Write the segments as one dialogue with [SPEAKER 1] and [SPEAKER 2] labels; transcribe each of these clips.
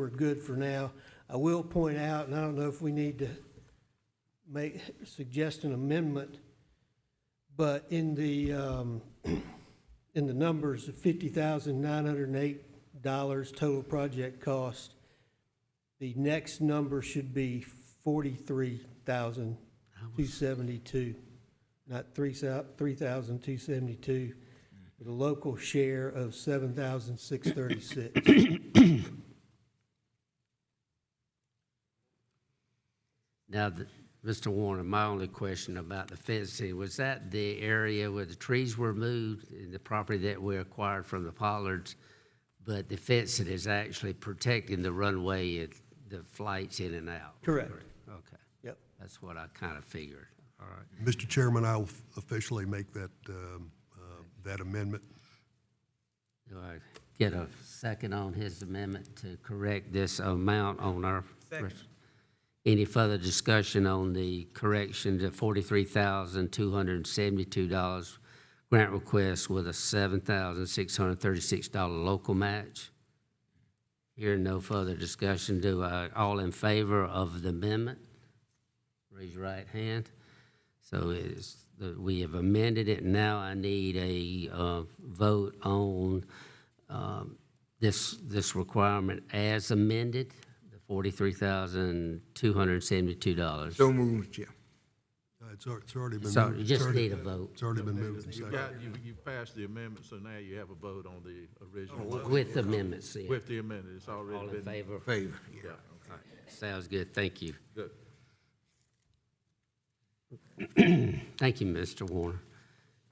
[SPEAKER 1] we're good for now. I will point out, and I don't know if we need to make, suggest an amendment, but in the, um, in the numbers of fifty thousand nine hundred and eight dollars total project cost, the next number should be forty-three thousand two seventy-two, not three thou- three thousand two seventy-two, with a local share of seven thousand six thirty-six.
[SPEAKER 2] Now, th- Mr. Warner, my only question about the fencing, was that the area where the trees were moved, in the property that we acquired from the Pollards? But the fencing is actually protecting the runway and the flights in and out?
[SPEAKER 1] Correct.
[SPEAKER 2] Okay,
[SPEAKER 1] Yep.
[SPEAKER 2] that's what I kind of figured, all right.
[SPEAKER 3] Mr. Chairman, I'll officially make that, um, uh, that amendment.
[SPEAKER 2] Do I get a second on his amendment to correct this amount on our? Any further discussion on the correction to forty-three thousand, two hundred and seventy-two dollars grant request with a seven thousand, six hundred and thirty-six dollar local match? Here, no further discussion. Do I, all in favor of the amendment? Raise your right hand. So it's, the- we have amended it, now I need a uh, vote on um, this, this requirement as amended, the $43,272.
[SPEAKER 4] So moved, Chair.
[SPEAKER 3] Uh, It's, al- it's already been moved.
[SPEAKER 2] So you
[SPEAKER 3] It's
[SPEAKER 2] just
[SPEAKER 3] already-
[SPEAKER 2] need a vote.
[SPEAKER 3] It's already been moved and
[SPEAKER 5] You
[SPEAKER 3] seconded.
[SPEAKER 5] got, you, you passed the amendment, so now you have a vote on the original motion
[SPEAKER 2] With amendments, yeah.
[SPEAKER 5] with the amendment. It's
[SPEAKER 2] All
[SPEAKER 5] already
[SPEAKER 2] in
[SPEAKER 5] been,
[SPEAKER 2] favor?
[SPEAKER 4] Favor, yeah.
[SPEAKER 2] Sounds good, thank you.
[SPEAKER 5] good.
[SPEAKER 2] Thank you, Mr. Warner.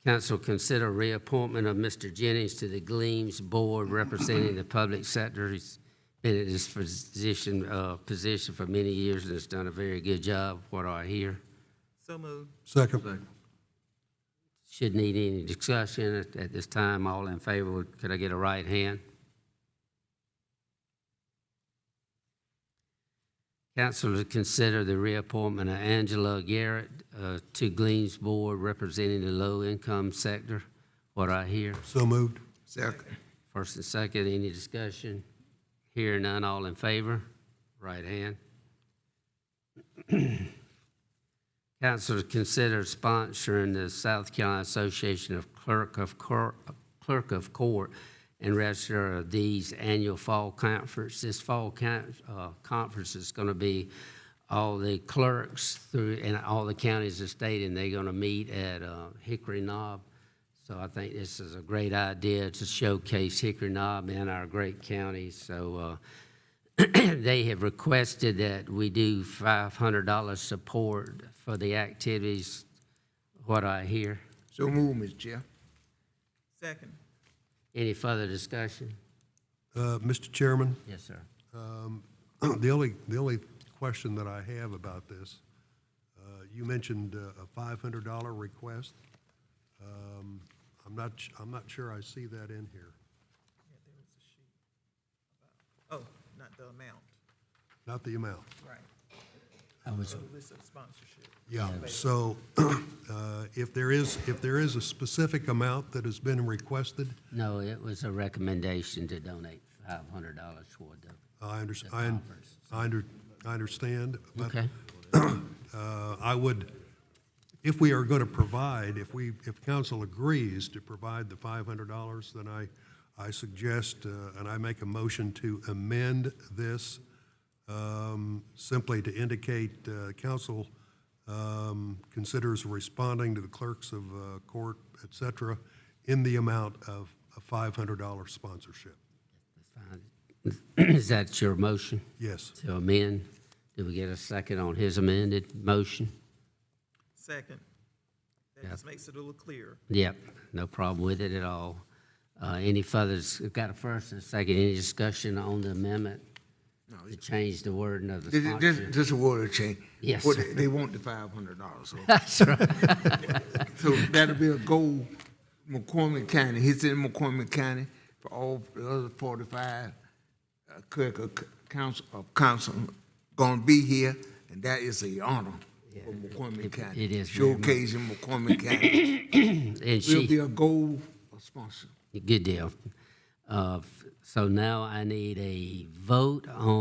[SPEAKER 2] Council, consider reappointment of Mr. Jennings to the Gleams Board representing the public sector. He's been in this position, uh, position for many years and has done a very good job, what I hear.
[SPEAKER 3] Second.
[SPEAKER 2] Should need any discussion at, at this time. All in favor, would- could I get a right hand? Council to consider the reappointment of Angela Garrett uh, to Gleans Board representing the low-income sector, what I hear.
[SPEAKER 3] So moved.
[SPEAKER 4] Second,
[SPEAKER 2] First and second, any discussion? Hearing none, all in favor? Right hand. Council to consider sponsoring the South Carolina Association of Clerk of Court, Clerk of Court and Register of these annual fall conference. This fall con, uh, conference is gonna be all the clerks through, in all the counties of the state, and they're gonna meet at, uh, Hickory Knob. So I think this is a great idea to showcase Hickory Knob and our great counties. So uh, they have requested that we do $500 support for the activities, what I hear.
[SPEAKER 4] so moved, Mr. Chair.
[SPEAKER 6] Second.
[SPEAKER 2] Any further discussion?
[SPEAKER 3] Uh, Mr. Chairman, um,
[SPEAKER 2] Yes, sir.
[SPEAKER 3] the only, the only question that I have about this, uh, you mentioned uh, a five hundred dollar request. Um, I'm not, sh- I'm not sure I see that in here.
[SPEAKER 6] Oh, not the amount,
[SPEAKER 3] Not the amount.
[SPEAKER 6] right.
[SPEAKER 2] I was,
[SPEAKER 6] List of sponsorship.
[SPEAKER 3] Yeah, so uh, if there is, if there is a specific amount that has been requested,
[SPEAKER 2] no, it was a recommendation to donate $500 toward the,
[SPEAKER 3] I under, I un- I under, I understand. but,
[SPEAKER 2] okay?
[SPEAKER 3] uh, I would, if we are going to provide, if we, if council agrees to provide the $500, then I, I suggest, uh, and I make a motion to amend this um, simply to indicate uh, council um, considers responding to the clerks of uh, court, et cetera, in the amount of a $500 sponsorship.
[SPEAKER 2] Is that your motion
[SPEAKER 3] Yes.
[SPEAKER 2] to amend? Do we get a second on his amended motion?
[SPEAKER 6] Second. That just makes it a little clearer.
[SPEAKER 2] Yep, no problem with it at all. Uh, Any further, dis- we've got a first and a second, any discussion on the amendment? To change the wording of the
[SPEAKER 4] This, this,
[SPEAKER 2] sponsor?
[SPEAKER 4] this is a word change.
[SPEAKER 2] Yes,
[SPEAKER 4] Well,
[SPEAKER 2] sir.
[SPEAKER 4] They they want the five hundred dollars, so,
[SPEAKER 2] That's right.
[SPEAKER 4] so that'll be a goal, McCormick County, he's in McCormick County for all the other forty-five uh, clerk of c- council, of council gonna be here, and that is a honor for McCormick County.
[SPEAKER 2] it is very much.
[SPEAKER 4] Showcasing McCormick County.
[SPEAKER 2] And
[SPEAKER 4] Will be
[SPEAKER 2] she,
[SPEAKER 4] a goal of sponsor.
[SPEAKER 2] good deal. Uh, f- So now I need a vote on